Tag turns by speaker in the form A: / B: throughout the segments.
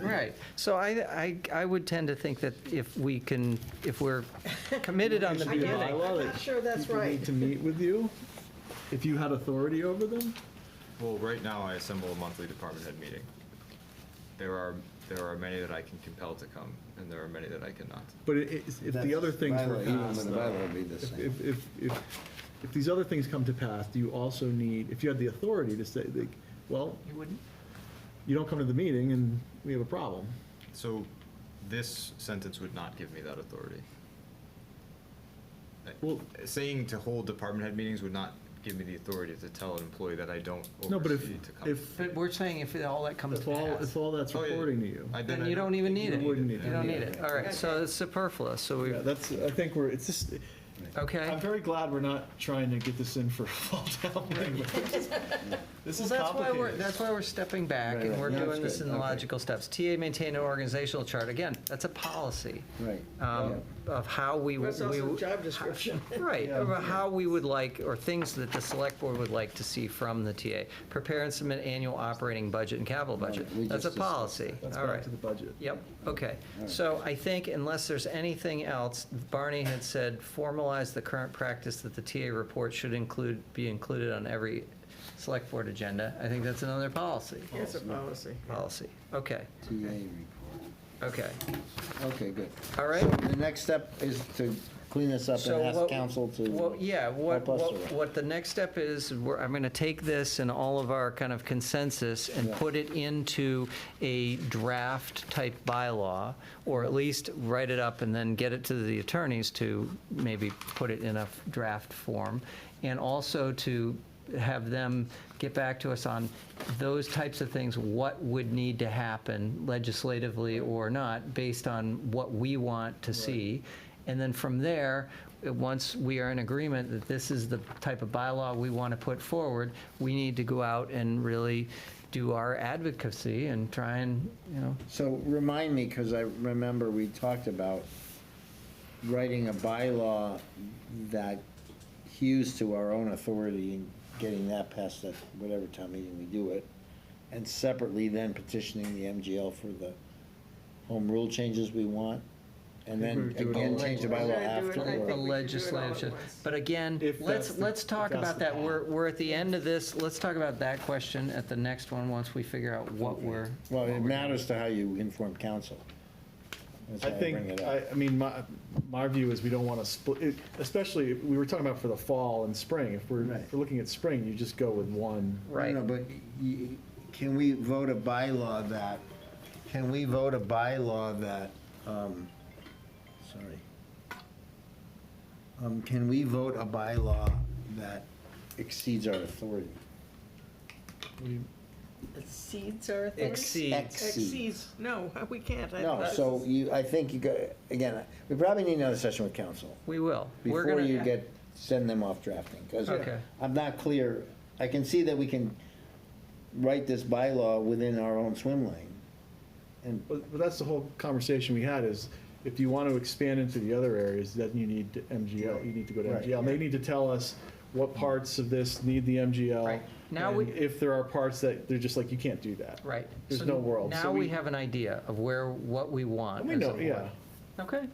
A: Right, so I, I, I would tend to think that if we can, if we're committed on the
B: I get it.
A: beginning.
B: I'm
C: Bylaw
B: not
C: that
B: sure that's
C: people
B: right.
C: need to meet with you, if you had authority over them?
D: Well, right now, I assemble a monthly department head meeting. There are, there are many that I can compel to come, and there are many that I cannot.
C: But it- it's- if the other things were passed,
E: Even the bylaw would be the
C: if,
E: same.
C: if, if, if- if these other things come to pass, do you also need, if you had the authority to say, like, well,
A: You wouldn't?
C: you don't come to the meeting and we have a problem?
D: So this sentence would not give me that authority. Uh,
C: Well-
D: Saying to hold department head meetings would not give me the authority to tell an employee that I don't
C: No, but if,
D: oversee to come.
C: if,
A: But we're saying if all that comes
C: if
A: to
C: all, if
A: pass,
C: all that's
D: Oh, yeah.
C: reporting to you.
D: I- then
A: then
D: I
A: you don't even
D: think
A: need
D: you
A: it. You
C: wouldn't need it.
A: don't need it, all right, so it's superfluous, so we,
C: Yeah, that's, I think we're, it's just, I'm
A: okay?
C: very glad we're not trying to get this in for a fall town meeting. but this- This
A: Well,
C: is
A: that's why
C: complicated.
A: we're, that's why we're stepping back
E: Right,
A: and
E: right.
A: we're
E: No,
A: doing
E: that's
A: this
E: good.
A: in the
E: Okay.
A: logical steps. TA maintain an organizational chart, again, that's a policy
E: Right.
C: Uh,
A: um, of how we.
B: That's
A: we-
B: also job description.
A: Right, or how we would like, or things that the select board would like to see from the TA. Prepare and submit annual operating budget and capital budget.
E: Right, we
A: That's a
E: just discussed
A: policy,
C: That's
A: all
C: back
A: right.
C: to the budget.
A: Yep, okay. So I think unless there's anything else, Barney had said, formalize the current practice that the TA report should include, be included on every select board agenda. I think that's another policy,
B: It's a policy.
A: policy. Okay,
E: TA report.
A: okay,
E: Okay, good.
A: all right.
E: So the next step is to clean this up
A: So
E: and ask
A: what-
E: council to.
A: Well, yeah, what,
E: help us
A: what-
E: with it.
A: what the next step is, we're, I'm gonna take this and all of our kind of consensus and
E: Yeah.
A: put it into a draft type bylaw, or at least write it up and then get it to the attorneys to maybe put it in a draft form. And also to have them get back to us on those types of things, what would need to happen legislatively or not, based on what we want to see. And then from there, uh, once we are in agreement that this is the type of bylaw we want to put forward, we need to go out and really do our advocacy and try and, you know,
E: So remind me, because I remember we talked about writing a bylaw that hews to our own authority and getting that passed at whatever time meeting we do it, and separately then petitioning the MGL for the home rule changes we want, and then
C: think we would do it
E: again
C: all
E: change the
B: at once.
E: bylaw
B: Yeah, do it.
E: after.
B: I think
E: or-
A: the
B: we should do it all at
A: legislature.
B: once.
A: But again,
C: If
A: let's,
C: that's the-
A: let's talk
C: if that's
A: about
C: the
A: that, we're,
C: path.
A: we're at the end of this, let's talk about that question at the next one, once we figure out what we're.
E: Well,
A: what
E: it
A: we're-
E: matters to how you inform council. That's
C: I
E: why bring
C: think,
E: it
C: I,
E: up.
C: I mean, my, my view is we don't want to split, it- especially, we were talking about for the fall and spring. If we're,
E: Right.
C: if we're looking at spring, you just go with one.
A: Right.
E: No, but y- can we vote a bylaw that, can we vote a bylaw that, um, sorry. Um, can we vote a bylaw that exceeds our authority?
B: Exceeds our authority?
A: Exceeds.
B: Exceeds, no, we can't. I-
E: No,
B: that's-
E: so you, I think you go, again, we probably need another session with council
A: We will. We're
E: before
A: gonna-
E: you get, send them off drafting, because
A: Okay.
E: I'm not clear. I can see that we can write this bylaw within our own swim lane. And
C: But, but that's the whole conversation we had is if you want to expand into the other areas, then you need to MGL, you need to go to
E: Right.
C: MGL. They need to tell us what parts of this need the MGL.
A: Right. Now
C: and
A: we-
C: If there are parts that they're just like, you can't do that.
A: Right.
C: There's
A: So
C: no world. So
A: Now we
C: we-
A: have an idea of where, what we want.
C: And we
A: as a
C: know,
A: board.
C: yeah,
A: Okay.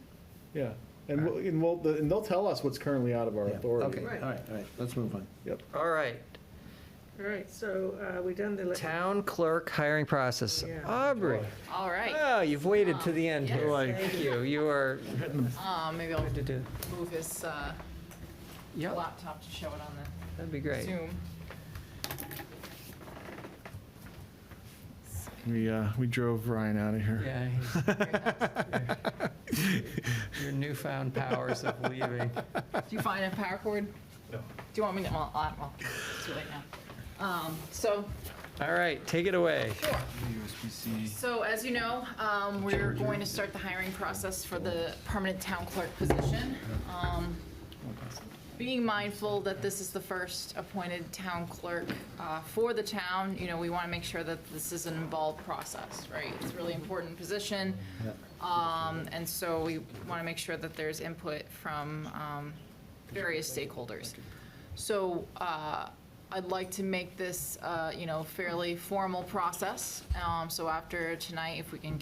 C: yeah. And we'll, and we'll, and they'll tell us what's currently out of our
E: Yeah,
C: authority.
E: Okay, all right, all right, let's move on.
C: Yep.
A: All right.
B: All right, so uh, we done the. le-
A: Town clerk hiring process.
B: Yeah.
A: Aubrey,
F: All right,
A: oh, you've waited to the end
F: Yes.
A: here. Thank you. You are,
B: um,
F: uh, maybe I'll
A: to do.
F: move this uh,
A: yeah,
F: laptop to show it on
A: that'd be
F: the
A: great.
F: Zoom.
C: We, uh, we drove Ryan out of here.
A: Yeah. Your newfound powers of leaving.
F: Do you find a power cord? Do you want me to, well, I- well, it's too late now. Um, So,
A: All right, take it away.
F: so as you know, um, we're going to start the hiring process for the permanent town clerk position. Um, Being mindful that this is the first appointed town clerk uh, for the town, you know, we want to make sure that this is an involved process, right? It's a really important position. Um, And so we want to make sure that there's input from um, various stakeholders. So uh, I'd like to make this, uh, you know, fairly formal process. Um, So after tonight, if we can